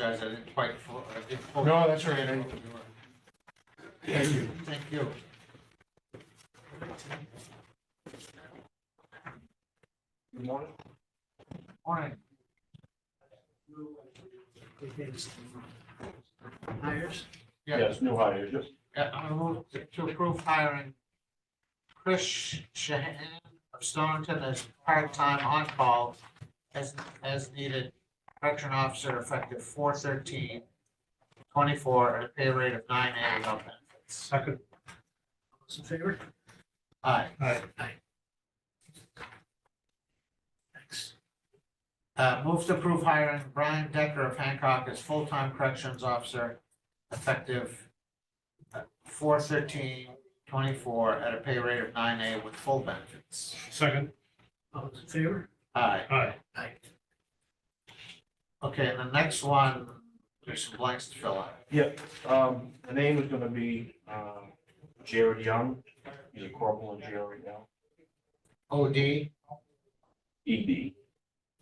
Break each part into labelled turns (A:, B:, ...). A: Guys, I didn't quite. fo- I didn't fo-
B: No, that's all right.
A: Thank you. Thank you. Good morning. Morning.
C: hires.
A: Yeah,
D: new hires, yes.
A: yeah, I move to approve hiring Chris Shahan of Stonington as part-time on-call as, as needed correction officer effective 4/13/24 at a pay rate of nine eighty without benefits.
C: Second. Those in favor?
A: Aye.
C: Aye. Thanks.
A: Uh, move to approve hiring Brian Decker of Hancock as full-time corrections officer effective uh, four thirteen twenty-four at a pay rate of nine A with full benefits.
C: Second. All those in favor?
A: Aye.
C: Aye. Aye.
A: Okay, and the next one, there's some blanks to fill out.
D: Um, the name is gonna be, um, Jared Young, he's a corporal in jail right now,
A: OD,
D: E D.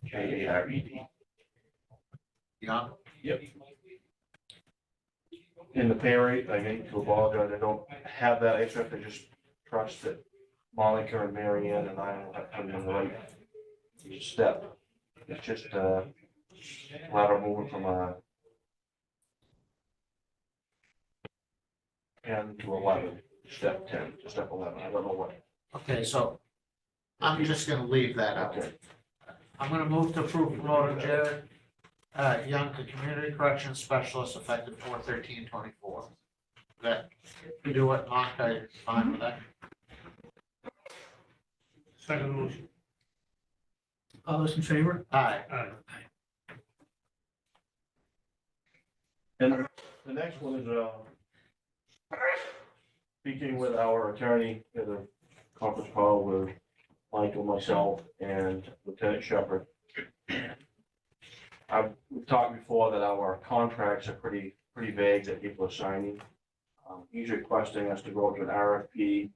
D: J A R E D,
A: young,
D: yep. In the pay rate, I need to apologize, I don't have that except I just trust that Monica and Mary Ann and I will have them in the right step. It's just, uh, lateral movement from a ten to eleven, step ten to step eleven, I don't know what.
A: okay, so I'm just gonna leave that out.
D: Okay.
A: I'm gonna move to approve promoting Jared, uh, Young to community corrections specialist effective four thirteen twenty-four. That, you do what, Mark, are you fine with that?
C: Second motion. All those in favor?
A: Aye,
C: Aye.
D: And the next one is, uh, speaking with our attorney, at a conference call with Michael, myself, and Lieutenant Shepard. I've, we've talked before that our contracts are pretty, pretty vague that people are signing. Um, He's requesting us to go to an RFP,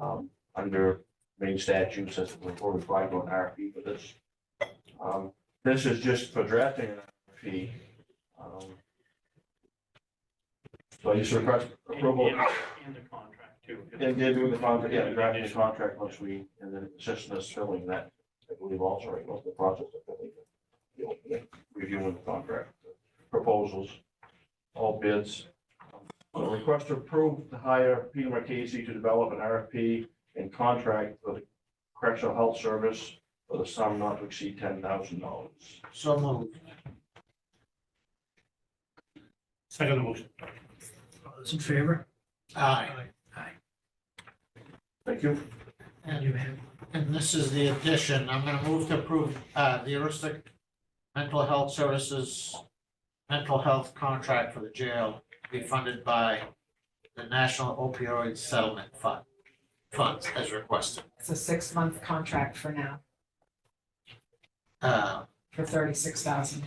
D: um, under main statutes, that's what we're required to go an RFP for this. Um, This is just for drafting an RFP. Um, so I just request approval. And the contract too. And did do the contract, yeah, drafting the contract once we, and then it's just us filling that, I believe also, right, was the process of filling. the- you know, Reviewing the contract, proposals, all bids. A Request to approve to hire Peter Marquesi to develop an RFP and contract for the correctional health service for the sum not to exceed ten thousand dollars.
A: so moved.
C: Second motion. All those in favor?
A: Aye,
D: Thank you.
C: And you have,
A: and this is the addition, I'm gonna move to approve, uh, the Aristic Mental Health Services Mental Health Contract for the jail to be funded by the National Opioid Settlement Fund, funds as requested.
E: It's a six-month contract for now,
A: Uh,
E: for thirty-six thousand.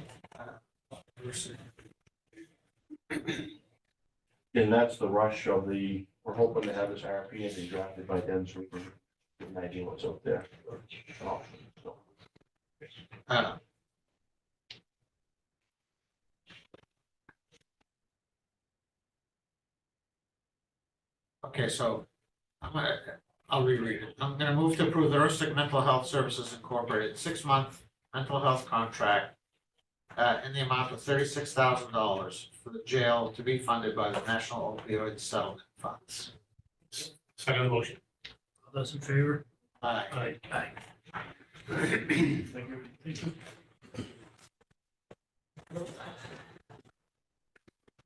D: And that's the rush of the, we're hoping to have this RFP and be drafted by then, so we can imagine what's out there. So,
A: Uh. Okay, so I'm gonna, I'll reread it. I'm gonna move to approve the Urstic Mental Health Services Incorporated six-month mental health contract uh, in the amount of thirty-six thousand dollars for the jail to be funded by the National Opioid Settlement Funds.
C: second motion. All those in favor?
A: Aye.
C: Aye. Aye.
D: Thank you.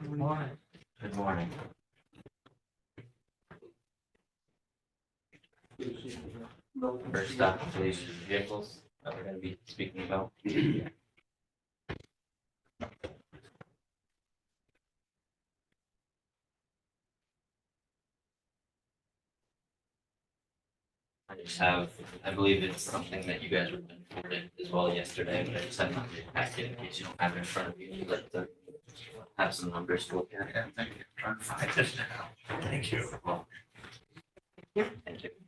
A: Good morning.
D: Good morning.
F: First off, the police vehicles that we're gonna be speaking about. I just have, I believe it's something that you guys were reported as well yesterday, but I just have not passed it in case you don't have it in front of you, you'd like to have some numbers to look at.
A: Yeah, thank you. Trying to find it now.
C: Thank you.
F: Well, Thank you.